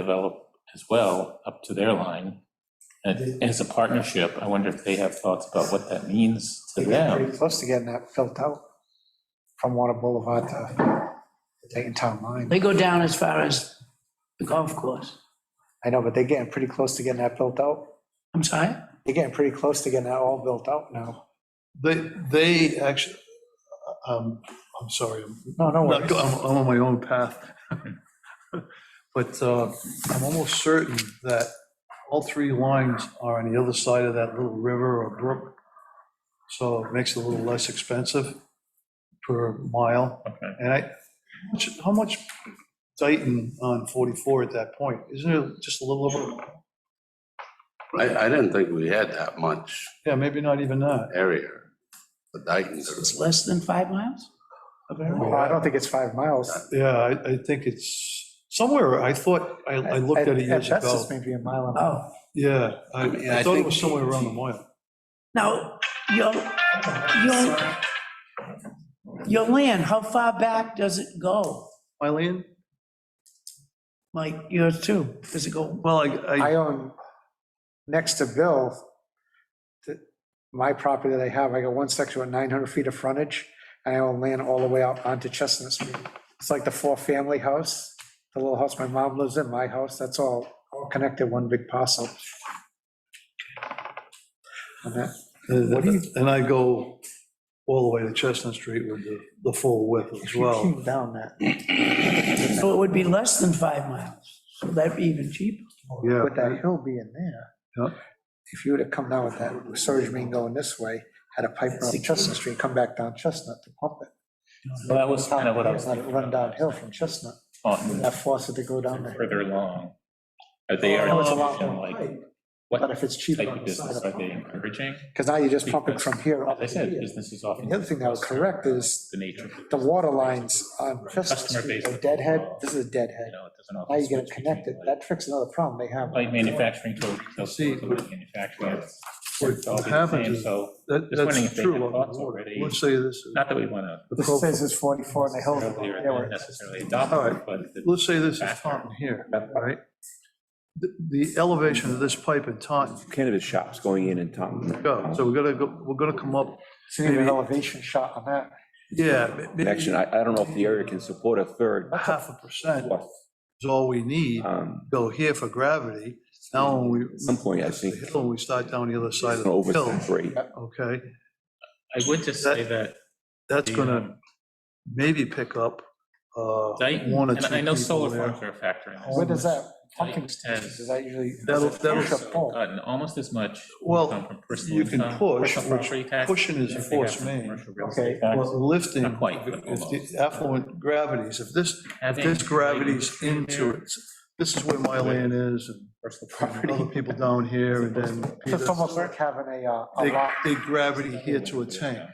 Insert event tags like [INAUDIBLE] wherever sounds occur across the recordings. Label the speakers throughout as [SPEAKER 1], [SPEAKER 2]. [SPEAKER 1] develop as well up to their line. And as a partnership, I wonder if they have thoughts about what that means to
[SPEAKER 2] They get
[SPEAKER 1] them.
[SPEAKER 2] pretty close to getting that built out from Water Boulevard to taking town line.
[SPEAKER 3] They go down as far as the golf course.
[SPEAKER 2] I know, but they're getting pretty close to getting that built out.
[SPEAKER 3] I'm sorry?
[SPEAKER 2] They're getting pretty close to getting that all built out now.
[SPEAKER 4] They, they actually, um, I'm sorry, I'm,
[SPEAKER 2] No, no
[SPEAKER 4] not
[SPEAKER 2] worries.
[SPEAKER 4] go- I'm I'm on my own path. [LAUGHS] But uh, I'm almost certain that all three lines are on the other side of that little river or brook. So it makes it a little less expensive per mile.
[SPEAKER 1] Okay.
[SPEAKER 4] And I, how much- how much Dayton on 44 at that point? Isn't it just a little over,
[SPEAKER 5] I, I didn't think we had that much
[SPEAKER 4] yeah, maybe not even that.
[SPEAKER 5] area for Dayton.
[SPEAKER 3] It's less than five miles? of area?
[SPEAKER 2] Well, I don't think it's five miles.
[SPEAKER 4] Yeah, I, I think it's somewhere, I thought, I, I looked at it years
[SPEAKER 2] At best,
[SPEAKER 4] ago.
[SPEAKER 2] it's maybe a mile and a half.
[SPEAKER 3] Oh,
[SPEAKER 4] Yeah, I,
[SPEAKER 5] I mean,
[SPEAKER 4] I
[SPEAKER 5] I
[SPEAKER 4] thought it
[SPEAKER 5] think-
[SPEAKER 4] was somewhere around the mile.
[SPEAKER 3] now, your, your, your land, how far back does it go?
[SPEAKER 4] My land?
[SPEAKER 3] Like yours too? Does it go,
[SPEAKER 4] Well, I,
[SPEAKER 2] I
[SPEAKER 4] I,
[SPEAKER 2] own, next to Bill, th- my property that I have, I got one section with 900 feet of frontage, and I own land all the way out onto Chestnut Street. It's like the four-family house, the little house my mom lives in, my house, that's all, all connected, one big parcel. And that-
[SPEAKER 4] what do you, and I go all the way to Chestnut Street with the, the full width [LAUGHS] as well.
[SPEAKER 2] Came Down that,
[SPEAKER 3] so it would be less than five miles. So that'd be even cheaper.
[SPEAKER 4] Yeah.
[SPEAKER 2] with that hill being there.
[SPEAKER 4] Yeah.
[SPEAKER 2] If you would have come down with that surge main going this way, had a pipe run up Chestnut Street, come back down Chestnut to pump it.
[SPEAKER 1] Well, that was kind of what I was
[SPEAKER 2] Let it
[SPEAKER 1] thinking.
[SPEAKER 2] run downhill from Chestnut,
[SPEAKER 1] On
[SPEAKER 2] that forces it to go down there.
[SPEAKER 1] further along. Are they
[SPEAKER 2] I know it's a lot
[SPEAKER 1] encouraging,
[SPEAKER 2] more
[SPEAKER 1] like,
[SPEAKER 2] pipe, But
[SPEAKER 1] what
[SPEAKER 2] if it's cheaper
[SPEAKER 1] type
[SPEAKER 2] on
[SPEAKER 1] of
[SPEAKER 2] the side
[SPEAKER 1] business
[SPEAKER 2] of
[SPEAKER 1] are they
[SPEAKER 2] pump.
[SPEAKER 1] encouraging?
[SPEAKER 2] Because now you're just pumping from here
[SPEAKER 1] As
[SPEAKER 2] up
[SPEAKER 1] I
[SPEAKER 2] to
[SPEAKER 1] said,
[SPEAKER 2] here.
[SPEAKER 1] businesses often.
[SPEAKER 2] The other thing that was correct is
[SPEAKER 1] The nature, of it,
[SPEAKER 2] the water lines on Chestnut
[SPEAKER 1] Customer
[SPEAKER 2] Street
[SPEAKER 1] base.
[SPEAKER 2] are deadhead, this is a
[SPEAKER 1] you
[SPEAKER 2] deadhead.
[SPEAKER 1] know, it doesn't often.
[SPEAKER 2] Now you get
[SPEAKER 1] switch
[SPEAKER 2] it
[SPEAKER 1] between,
[SPEAKER 2] connected,
[SPEAKER 1] like,
[SPEAKER 2] that fixes another problem they have.
[SPEAKER 1] Like manufacturing to retail
[SPEAKER 4] See,
[SPEAKER 1] stores, like manufacturing. it's-
[SPEAKER 4] what
[SPEAKER 1] it's all the
[SPEAKER 4] happens
[SPEAKER 1] same,
[SPEAKER 4] is-
[SPEAKER 1] So,
[SPEAKER 4] That,
[SPEAKER 1] Just wondering if
[SPEAKER 4] that's
[SPEAKER 1] they
[SPEAKER 4] true.
[SPEAKER 1] had
[SPEAKER 4] along
[SPEAKER 1] thoughts
[SPEAKER 4] the water.
[SPEAKER 1] already.
[SPEAKER 4] Let's say this, is-
[SPEAKER 1] not that we want to
[SPEAKER 4] the
[SPEAKER 2] This
[SPEAKER 4] profile-
[SPEAKER 2] says it's 44 and the hill.
[SPEAKER 1] earlier
[SPEAKER 2] there were-
[SPEAKER 1] than necessarily adopt,
[SPEAKER 4] All
[SPEAKER 1] it,
[SPEAKER 4] right.
[SPEAKER 1] but. the-
[SPEAKER 4] let's say this is Taunton here, right? The, the elevation of this pipe in Taunton,
[SPEAKER 6] cannabis shops going in and talking.
[SPEAKER 4] go, so we're gonna go, we're gonna come up,
[SPEAKER 2] It's an even elevation shot on that.
[SPEAKER 4] yeah, ma- ma-
[SPEAKER 6] Connection, I, I don't know if the area can support a third,
[SPEAKER 4] half a percent
[SPEAKER 6] fourth.
[SPEAKER 4] is all we need.
[SPEAKER 6] um,
[SPEAKER 4] Go here for gravity. Now, when we.
[SPEAKER 6] At some point, I think,
[SPEAKER 4] the hill, we start down the other side of
[SPEAKER 6] it's
[SPEAKER 4] the
[SPEAKER 6] gonna
[SPEAKER 4] hill,
[SPEAKER 6] oversaturate.
[SPEAKER 4] okay?
[SPEAKER 1] I would just say that
[SPEAKER 4] That's
[SPEAKER 1] the,
[SPEAKER 4] gonna
[SPEAKER 1] um,
[SPEAKER 4] maybe pick up uh,
[SPEAKER 1] Dayton,
[SPEAKER 4] one or
[SPEAKER 1] and
[SPEAKER 4] two
[SPEAKER 1] I know
[SPEAKER 4] people
[SPEAKER 1] solar
[SPEAKER 4] there.
[SPEAKER 1] farms are a factor in this.
[SPEAKER 2] Where does that pumping
[SPEAKER 1] Tight
[SPEAKER 2] station,
[SPEAKER 1] as-
[SPEAKER 2] does that usually?
[SPEAKER 4] That'll-
[SPEAKER 2] does it
[SPEAKER 4] that'll-
[SPEAKER 2] push up all?
[SPEAKER 1] Gotten almost as much.
[SPEAKER 4] Well,
[SPEAKER 1] income from personal
[SPEAKER 4] You can
[SPEAKER 1] income,
[SPEAKER 4] push,
[SPEAKER 1] personal
[SPEAKER 4] which
[SPEAKER 1] property tax,
[SPEAKER 4] pushing
[SPEAKER 1] as
[SPEAKER 4] is a
[SPEAKER 1] they have
[SPEAKER 4] force
[SPEAKER 1] from
[SPEAKER 4] main.
[SPEAKER 1] commercial real
[SPEAKER 2] Okay,
[SPEAKER 1] estate tax.
[SPEAKER 4] Well, lifting,
[SPEAKER 1] Not quite, but
[SPEAKER 4] if
[SPEAKER 1] almost.
[SPEAKER 4] the affluent gravities, if this, if
[SPEAKER 1] Having
[SPEAKER 4] this gravity's
[SPEAKER 1] Dayton
[SPEAKER 4] into
[SPEAKER 1] there,
[SPEAKER 4] it, this is where my land is and
[SPEAKER 1] Personal property.
[SPEAKER 4] other people down here and then.
[SPEAKER 2] It's almost like having a, uh, a
[SPEAKER 4] They,
[SPEAKER 2] lot.
[SPEAKER 4] they gravity here to a tank.
[SPEAKER 2] Yeah.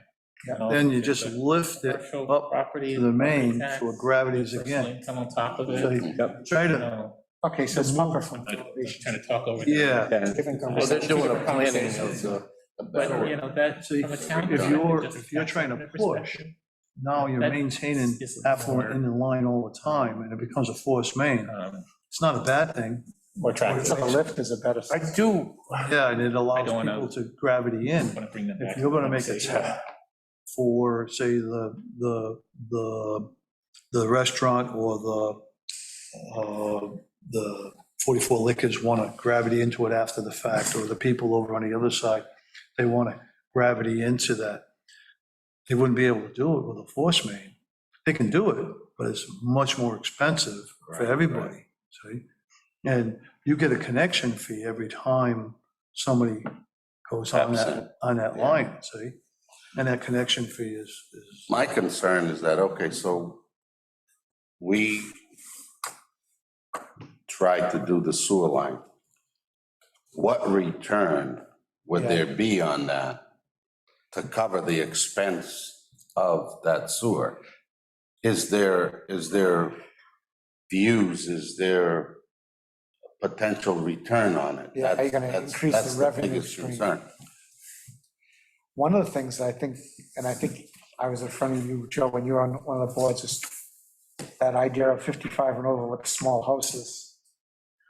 [SPEAKER 1] And uh, also
[SPEAKER 4] Then you
[SPEAKER 1] there's
[SPEAKER 4] just
[SPEAKER 1] a
[SPEAKER 4] lift it
[SPEAKER 1] commercial
[SPEAKER 4] up
[SPEAKER 1] property,
[SPEAKER 4] to the main,
[SPEAKER 1] property
[SPEAKER 4] so it
[SPEAKER 1] tax,
[SPEAKER 4] gravities
[SPEAKER 1] personal
[SPEAKER 4] again.
[SPEAKER 1] Income on top of
[SPEAKER 4] So
[SPEAKER 1] it.
[SPEAKER 4] you
[SPEAKER 6] Yep.
[SPEAKER 4] try
[SPEAKER 1] you
[SPEAKER 4] to,
[SPEAKER 1] know,
[SPEAKER 2] Okay, so it's pumping from
[SPEAKER 1] I- I'm
[SPEAKER 2] elevation.
[SPEAKER 1] Trying to talk over. them.
[SPEAKER 4] yeah.
[SPEAKER 6] Yeah,
[SPEAKER 2] Different
[SPEAKER 1] Well, they're
[SPEAKER 2] conversation.
[SPEAKER 1] doing a planning
[SPEAKER 5] of the.
[SPEAKER 1] But, you know, that,
[SPEAKER 4] See,
[SPEAKER 1] from a town.
[SPEAKER 4] if
[SPEAKER 1] perspective,
[SPEAKER 4] you're-
[SPEAKER 1] just
[SPEAKER 4] if you're
[SPEAKER 1] tax
[SPEAKER 4] trying to
[SPEAKER 1] increment
[SPEAKER 4] push,
[SPEAKER 1] perspective,
[SPEAKER 4] Now you're
[SPEAKER 1] That
[SPEAKER 4] maintaining
[SPEAKER 1] is a
[SPEAKER 4] affluent
[SPEAKER 1] more-
[SPEAKER 4] in the line all the time and it becomes a forced main.
[SPEAKER 1] um,
[SPEAKER 4] It's not a bad thing.
[SPEAKER 1] More
[SPEAKER 2] So the
[SPEAKER 1] attractive.
[SPEAKER 2] lift is a better.
[SPEAKER 1] I do
[SPEAKER 4] Yeah, and it allows
[SPEAKER 1] don't wanna-
[SPEAKER 4] people to gravity in.
[SPEAKER 1] want to bring them back.
[SPEAKER 4] If you're gonna make a
[SPEAKER 1] conversation.
[SPEAKER 4] tap for, say, the, the, the, the restaurant or the, uh, the 44 Liquors wanna gravity into it after the fact, or the people over on the other side, they wanna gravity into that. They wouldn't be able to do it with a force main. They can do it, but it's much more expensive for
[SPEAKER 5] Right,
[SPEAKER 4] everybody, see? And you get a connection fee every time somebody goes on
[SPEAKER 5] Absolutely.
[SPEAKER 4] that, on that
[SPEAKER 5] Yeah.
[SPEAKER 4] line, see? And that connection fee is, is,
[SPEAKER 5] My concern is that, okay, so we tried to do the sewer line. What return would there be on that to cover the expense of that sewer? Is there, is there views, is there potential return on it?
[SPEAKER 2] Yeah, are you gonna
[SPEAKER 5] That's-
[SPEAKER 2] increase the
[SPEAKER 5] that's
[SPEAKER 2] revenue
[SPEAKER 5] biggest
[SPEAKER 2] stream?
[SPEAKER 5] concern.
[SPEAKER 2] One of the things that I think, and I think I was in front of you, Joe, when you were on one of the boards, is that idea of 55 and over with small houses.